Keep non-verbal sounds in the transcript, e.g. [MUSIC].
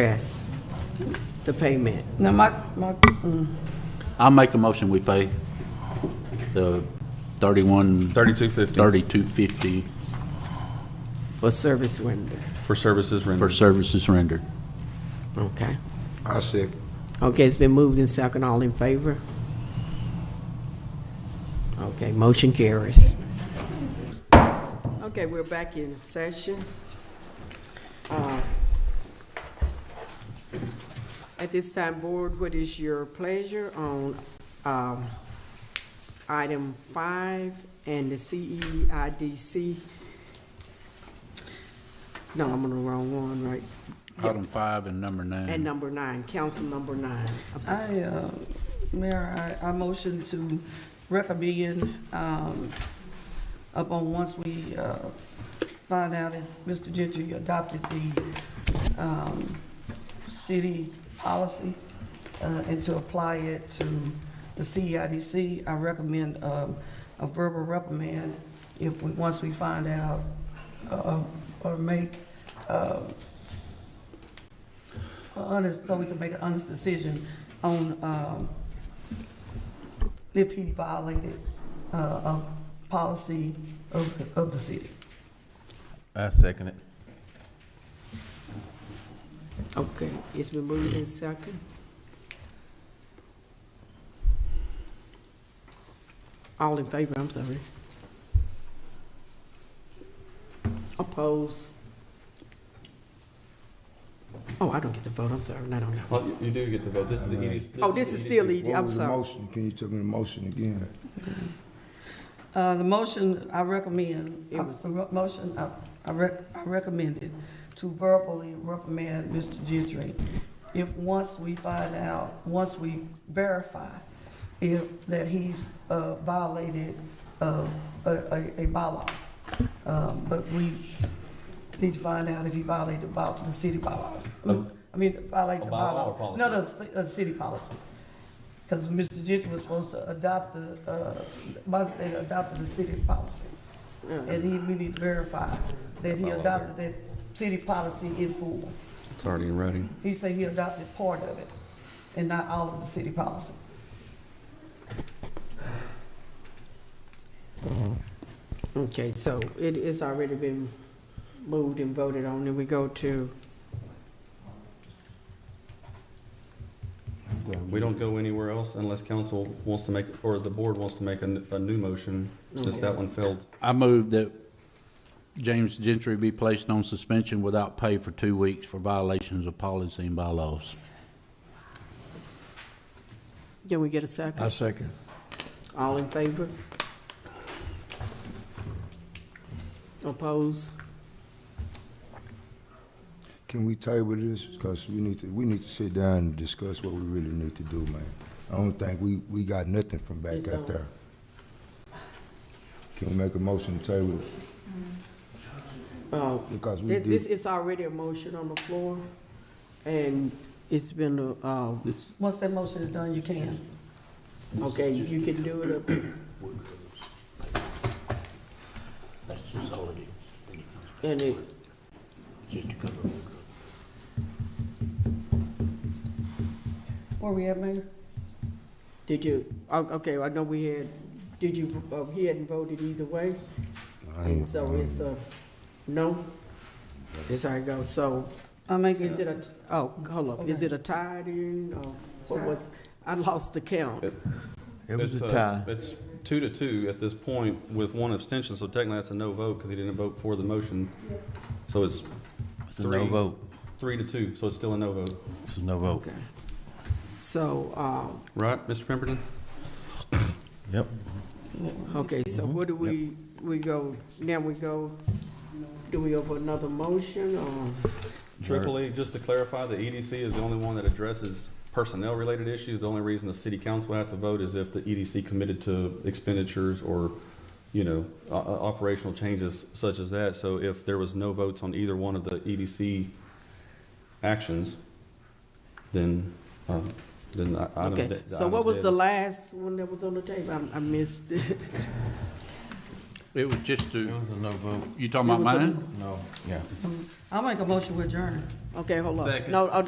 address the payment. No, my, my, mm, I'll make a motion, we pay the thirty-one, Thirty-two fifty thirty-two fifty for service rendered, for services for rendered. services rendered. okay? I second. Okay, it's been moved and second, all in favor? Okay, motion carries. Okay, we're back in session. Uh, At this time, Board, what is your pleasure on um, item five and the E CEIDC? No, I'm on the wrong one, right? Item five and number And nine. number nine, council number nine. I'm sorry. I, uh, Mayor, I, I motion to recommend, um, upon once we, uh, find out if Mr. Gentry adopted the, um, city policy, uh, and to apply it to the CEIDC, I recommend, um, a verbal reprimand if we, once we find out, uh, or make, uh, a honest, so we can make an honest decision on, um, if he violated, uh, a policy of, of the city. I second it. Okay, it's been moved in second. All in favor, I'm sorry. Oppose? Oh, I don't get to vote, I'm sorry, I don't know. Well, you- you do get to vote. This is the EDC. Oh, this is still ED, What I'm was the sorry. motion? Can you tell me the motion again? Uh, the motion, I recommend, It was- the re- motion, I, I rec, I recommended to verbally reprimand Mr. Gentry. If, once we find out, once we verify if, that he's, uh, violated, uh, a, a, a bylaw. Um, but we need to find out if he violated about the city bylaw. I mean, violated A the bylaw or bylaw. policy? No, no, ci- uh, city policy. Because Mr. Gentry was supposed to adopt the, uh, Modern State adopted the city policy. And he, we need to verify that he adopted that city policy in full. It's already in writing. He said he adopted part of it and not all of the city policy. Uh, Okay, so it is already been moved and voted on, and we go to, We don't go anywhere else unless council wants to make, or the board wants to make a, n- a new motion, since that one failed. I move that James Gentry be placed on suspension without pay for two weeks for violations of policy and bylaws. can we get a second? I second. All in favor? Oppose? Can we table this? Because we need to, we need to sit down and discuss what we really need to do, man. I don't think we, we got nothing from back It's out on. there. Can we make a motion to table? it? Oh, Because we This, this did, is already a motion on the floor, and it's been, a, uh, Once that motion is done, you can. okay, you can do it up. That's just all it is, And it, just to cover Where we at, Mayor? did you, o- Oh, okay, I know we had, did you, uh, he hadn't voted either way, I ain't, I so it's ain't- a no? It's how it goes, so I make is it it, a, oh, hold up, is it a tie then, or what was, I lost the count. It was It's, a uh, tie. It's two to two at this point with one abstention, so technically that's a no vote because he didn't vote for the motion. So it's It's a no Three. vote. three to two, so it's still a no vote. It's a no vote. Okay. So, uh, Right, Mr. Pemberton? Yep. Okay, so what do we, we go, now we go, do we go for another motion or? Triple E, just to clarify, the EDC is the only one that addresses personnel-related issues. The only reason the city council would have to vote is if the EDC committed to expenditures or, you know, o- o- operational changes such as that. So if there was no votes on either one of the EDC actions, then, um, then the item's Okay, dead. so what was the item's last one that was on the table? I, I missed it. It was just It to, was a no vote. you talking about It was a- mine? No, yeah. I'll make a motion with adjourn. [LAUGHS] Okay, hold on. Second. No, uh,